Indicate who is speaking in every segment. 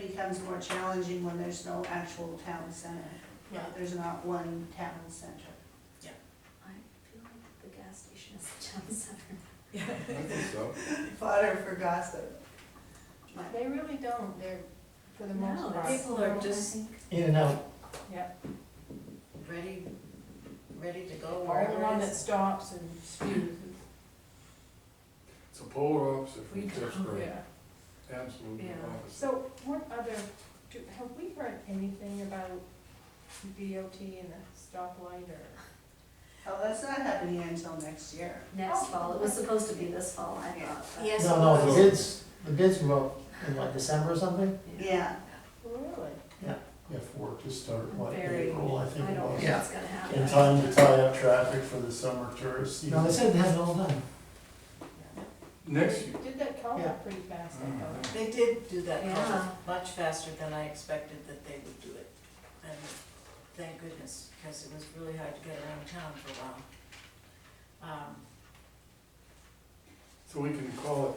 Speaker 1: becomes more challenging when there's no actual town center.
Speaker 2: Yeah.
Speaker 1: There's not one town center.
Speaker 3: I feel like the gas station is the town center.
Speaker 4: I think so.
Speaker 2: Fodder for gossip.
Speaker 1: Right.
Speaker 2: They really don't, they're, for the most
Speaker 3: No,
Speaker 2: part.
Speaker 3: people are just,
Speaker 5: in and out.
Speaker 6: ready, ready to go
Speaker 2: Or the
Speaker 6: wherever
Speaker 2: one
Speaker 6: it
Speaker 2: that
Speaker 6: is.
Speaker 2: stops and spews.
Speaker 4: It's a polar opposite from
Speaker 6: We don't,
Speaker 4: Pittsburgh,
Speaker 2: Yeah.
Speaker 4: absolutely
Speaker 6: Yeah.
Speaker 4: opposite.
Speaker 2: So what other, do, have we heard anything about DOT and the stoplight or?
Speaker 1: Oh, that's not happening until next year.
Speaker 3: next fall, it
Speaker 2: Oh.
Speaker 3: was supposed to be this fall, I thought. but-
Speaker 6: Yes,
Speaker 5: No, no, the bids, the bids go out in like December or something?
Speaker 1: Yeah,
Speaker 2: Really?
Speaker 5: Yeah, for work to start, like
Speaker 3: Very-
Speaker 5: April, I think
Speaker 3: I
Speaker 5: it
Speaker 3: don't
Speaker 5: was.
Speaker 3: think it's gonna happen.
Speaker 7: In time to tie up traffic for the summer tourist
Speaker 5: No,
Speaker 7: season.
Speaker 5: they said they had it all done.
Speaker 4: Next year,
Speaker 2: Did that call
Speaker 5: Yeah.
Speaker 2: up pretty fast, I
Speaker 4: Mm.
Speaker 2: thought.
Speaker 6: They did do that
Speaker 3: Yeah.
Speaker 6: project much faster than I expected that they would do it. And thank goodness, because it was really hard to get around town for a while. Um,
Speaker 4: so we can call it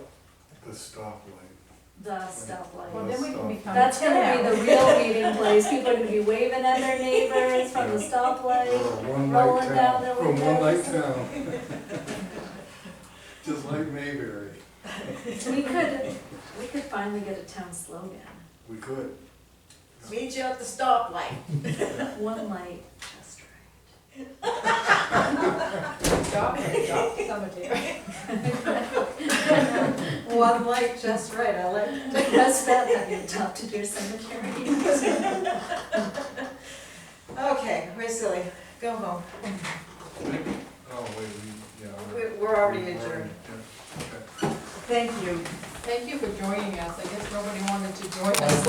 Speaker 4: the stoplight.
Speaker 3: The
Speaker 2: Well,
Speaker 3: stoplight.
Speaker 2: then we can become.
Speaker 3: That's gonna be
Speaker 2: proud.
Speaker 3: the real meeting place, people are gonna be waving at their neighbors from the stoplight.
Speaker 4: Or a one
Speaker 3: rolling
Speaker 4: light
Speaker 3: down the
Speaker 4: town, from one light
Speaker 3: windows.
Speaker 4: town. Just like Mayberry,
Speaker 3: We could, we could finally get a town slogan,
Speaker 4: we could.
Speaker 6: Meet you at the stoplight.
Speaker 3: one light, just right.
Speaker 2: Stop, stop, cemetery.
Speaker 6: One light just right, I like
Speaker 3: That's bad, having adopted your cemetery.
Speaker 6: Okay, we're silly, go home.
Speaker 4: Oh, wait, we, yeah.
Speaker 6: We're- We're already
Speaker 4: we're
Speaker 6: adjourned.
Speaker 4: yeah, okay.
Speaker 6: Thank you.
Speaker 2: Thank you for joining us, I guess nobody wanted to join
Speaker 5: My
Speaker 2: us